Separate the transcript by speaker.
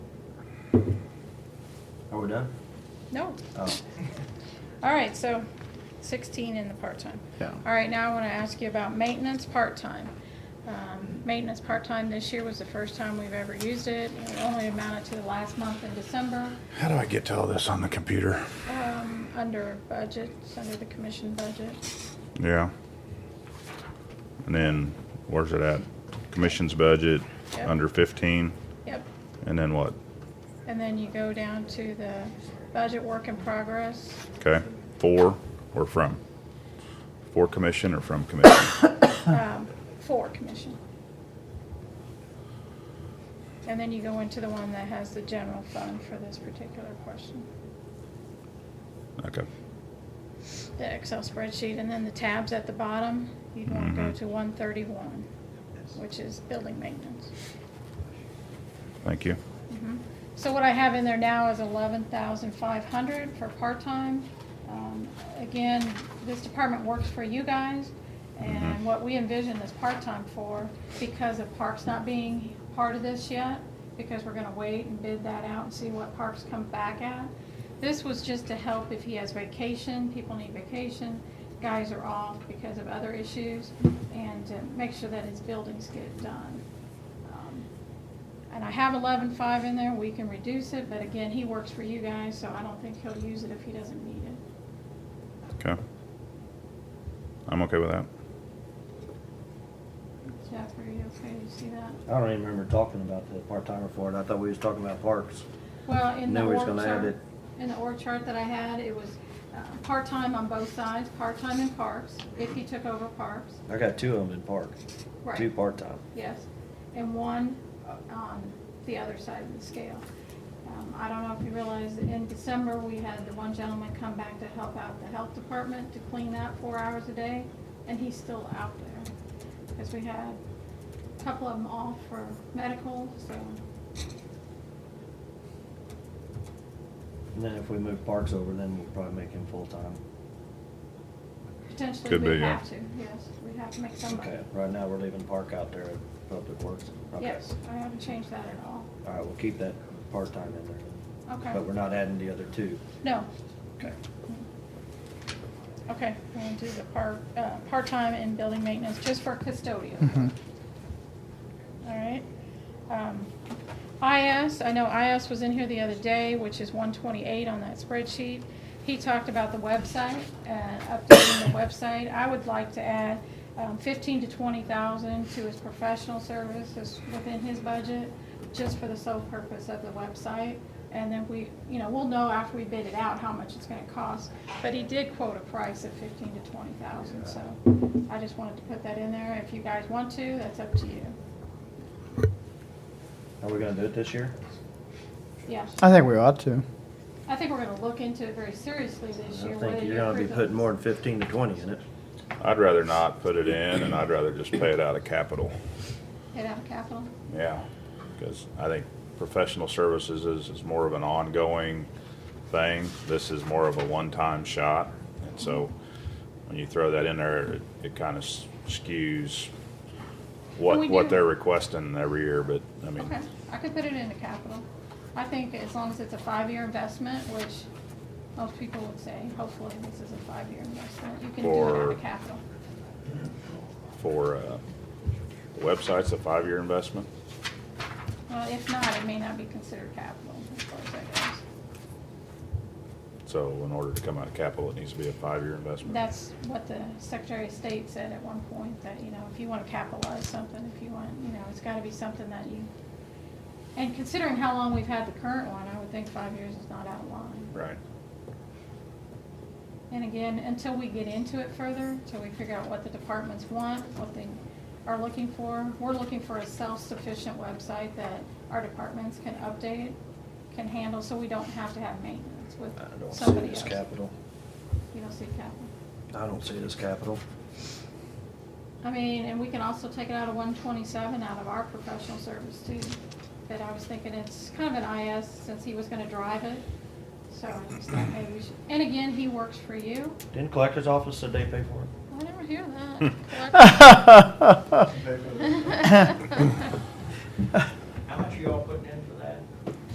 Speaker 1: Are we done?
Speaker 2: No.
Speaker 1: Oh,
Speaker 2: All right, so sixteen in the part-time.
Speaker 3: Yeah.
Speaker 2: All right, now I want to ask you about maintenance part-time. Um, Maintenance part-time this year was the first time we've ever used it. It only amounted to the last month in December,
Speaker 3: How do I get to all this on the computer?
Speaker 2: um, under budget, it's under the commission budget.
Speaker 3: Yeah. And then where's it at? Commission's budget,
Speaker 2: Yep.
Speaker 3: under fifteen,
Speaker 2: Yep.
Speaker 3: and then what?
Speaker 2: And then you go down to the budget work in progress.
Speaker 3: Okay, for or from? For commission or from commission?
Speaker 2: um, for commission. And then you go into the one that has the general fund for this particular question,
Speaker 3: Okay,
Speaker 2: the Excel spreadsheet, and then the tabs at the bottom, you'd want to go
Speaker 3: Mhm.
Speaker 2: to one thirty-one, which is building maintenance.
Speaker 3: thank you.
Speaker 2: Mhm. So what I have in there now is eleven thousand five hundred for part-time. Um, Again, this department works for you guys, and
Speaker 3: Mhm.
Speaker 2: what we envision is part-time for, because of Parks not being part of this yet, because we're gonna wait and bid that out and see what Parks come back at. This was just to help if he has vacation, people need vacation, guys are off because of other issues, and to make sure that his buildings get done. Um, and I have eleven-five in there, we can reduce it, but again, he works for you guys, so I don't think he'll use it if he doesn't need it.
Speaker 3: Okay. I'm okay with that.
Speaker 2: Jeff, are you okay, you see that?
Speaker 1: I don't even remember talking about the part-timer for it. I thought we was talking about parks.
Speaker 2: Well, in the
Speaker 1: No, we're just
Speaker 2: org
Speaker 1: gonna add
Speaker 2: chart,
Speaker 1: it.
Speaker 2: in the org chart that I had, it was, uh, part-time on both sides, part-time in parks, if he took over parks,
Speaker 1: I got two of them in parks.
Speaker 2: Right.
Speaker 1: Two part-time.
Speaker 2: yes, and one on the other side of the scale. Um, I don't know if you realize, that in December, we had the one gentleman come back to help out the health department to clean that four hours a day, and he's still out there. Because we had a couple of them off for medical, so,
Speaker 1: And then if we move parks over, then we'll probably make him full-time.
Speaker 2: potentially
Speaker 3: Could be,
Speaker 2: we
Speaker 3: yeah.
Speaker 2: have to, yes, we have to make somebody.
Speaker 1: Okay, right now we're leaving park out there at Public Works. Okay.
Speaker 2: Yes, I haven't changed that at all,
Speaker 1: All right, we'll keep that part-time in there. But we're
Speaker 2: okay,
Speaker 1: not adding the other two.
Speaker 2: no,
Speaker 1: Okay.
Speaker 2: okay, we're gonna do the part, uh, part-time in building maintenance, just for custodial. All right. Um, IS, I know IS was in here the other day, which is one twenty-eight on that spreadsheet. He talked about the website, uh, updating the website. I would like to add um, fifteen to twenty thousand to his professional services within his budget, just for the sole purpose of the website. And then we, you know, we'll know after we bid it out how much it's gonna cost. But he did quote a price of fifteen to twenty thousand, so I just wanted to put that in there. If you guys want to, that's up to you.
Speaker 1: Are we gonna do it this year?
Speaker 2: Yeah,
Speaker 4: I think we ought to.
Speaker 2: I think we're gonna look into it very seriously this
Speaker 1: I
Speaker 2: year.
Speaker 1: think
Speaker 2: whether
Speaker 1: you're
Speaker 2: you
Speaker 1: gonna be
Speaker 2: approve it.
Speaker 1: putting more than fifteen to twenty in it.
Speaker 3: I'd rather not put it in and I'd rather just pay it out of capital.
Speaker 2: Get out of capital.
Speaker 3: Yeah, because I think professional services is, is more of an ongoing thing. This is more of a one-time shot. And so when you throw that in there, it, it kind of skews
Speaker 2: we
Speaker 3: what,
Speaker 2: do-
Speaker 3: what they're requesting every year, but I mean,
Speaker 2: Okay, I could put it into capital. I think as long as it's a five-year investment, which most people would say, hopefully this is a five-year investment, you can do it out
Speaker 3: For-
Speaker 2: of capital.
Speaker 3: for, uh, the website's a five-year investment.
Speaker 2: Well, if not, it may not be considered capital as far as that goes.
Speaker 3: So in order to come out of capital, it needs to be a five-year investment.
Speaker 2: That's what the Secretary of State said at one point, that, you know, if you wanna capitalize something, if you want, you know, it's gotta be something that you, and considering how long we've had the current one, I would think five years is not out of line.
Speaker 3: Right.
Speaker 2: And again, until we get into it further, until we figure out what the departments want, what they are looking for, we're looking for a self-sufficient website that our departments can update, can handle, so we don't have to have maintenance with
Speaker 1: I don't see
Speaker 2: somebody
Speaker 1: it as
Speaker 2: else.
Speaker 1: capital.
Speaker 2: You don't see capital.
Speaker 1: I don't see it as capital.
Speaker 2: I mean, and we can also take it out of one twenty-seven out of our professional service too. But I was thinking it's kind of an IS since he was gonna drive it, so I just thought maybe we should, and again, he works for you.
Speaker 1: Didn't collector's office said they pay for it?
Speaker 2: I never hear that.